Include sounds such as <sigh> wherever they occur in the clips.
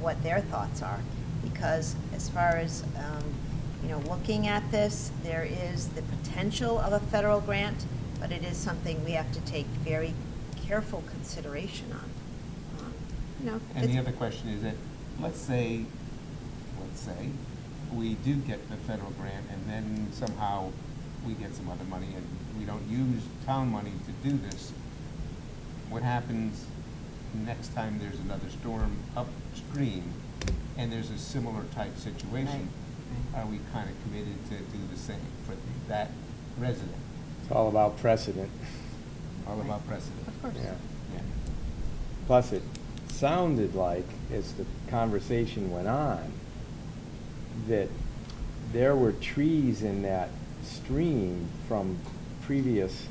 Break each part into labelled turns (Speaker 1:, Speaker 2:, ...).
Speaker 1: what their thoughts are. Because as far as, um, you know, looking at this, there is the potential of a federal grant, but it is something we have to take very careful consideration on. Um, You know.
Speaker 2: And the
Speaker 1: it's-
Speaker 2: other question is that, let's say, let's say, we do get the federal grant and then somehow we get some other money and we don't use town money to do this. What happens next time there's another storm upstream and there's a similar type situation? Are we kind of committed to do the same for that resident?
Speaker 3: It's all about precedent.
Speaker 2: All about precedent.
Speaker 1: Of course.
Speaker 3: Yeah.
Speaker 2: Yeah.
Speaker 3: Plus, it sounded like, as the conversation went on, that there were trees in that stream from previous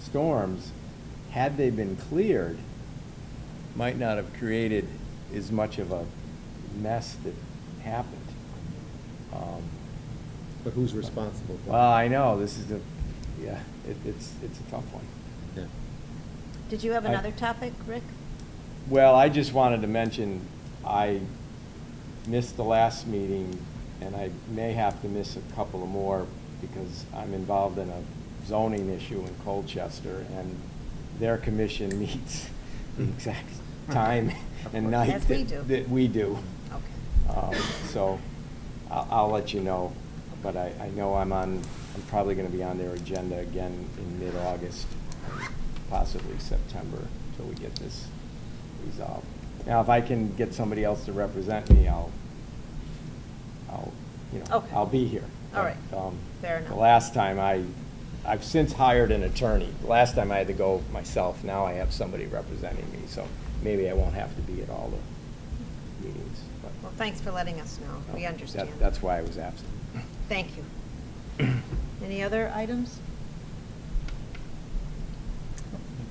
Speaker 3: storms, had they been cleared, might not have created as much of a mess that happened. Um,
Speaker 4: But who's responsible? for it?
Speaker 3: Well, I know, this is the, yeah, it, it's, it's a tough one.
Speaker 4: Yeah.
Speaker 1: Did you have
Speaker 3: I-
Speaker 1: another topic, Rick?
Speaker 3: Well, I just wanted to mention, I missed the last meeting, and I may have to miss a couple of more, because I'm involved in a zoning issue in Colchester, and their commission <laughs> meets the exact time and night.
Speaker 1: As we
Speaker 3: that-
Speaker 1: do.
Speaker 3: That we do.
Speaker 1: Okay.
Speaker 3: Um, So I'll, I'll let you know, but I, I know I'm on, I'm probably going to be on their agenda again in mid-August, possibly September, till we get this resolved. Now, if I can get somebody else to represent me, I'll, I'll, you know,
Speaker 1: Okay.
Speaker 3: I'll be here.
Speaker 1: All right.
Speaker 3: But, um,
Speaker 1: Fair enough.
Speaker 3: The last time I, I've since hired an attorney. Last time I had to go myself, now I have somebody representing me, so maybe I won't have to be at all the meetings, but.
Speaker 1: Well, thanks for letting us know. We
Speaker 3: That-
Speaker 1: understand.
Speaker 3: That's why I was absent.
Speaker 1: Thank you. <coughs> Any other items?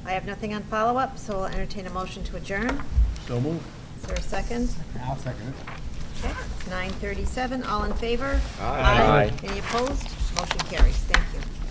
Speaker 1: I have nothing on follow-up, so I'll entertain a motion to adjourn.
Speaker 4: So move.
Speaker 1: Is there a second?
Speaker 2: I'll second it.
Speaker 1: Okay, it's 9:37. All in favor?
Speaker 3: Aye. Aye.
Speaker 1: Any opposed? Motion carries. Thank you.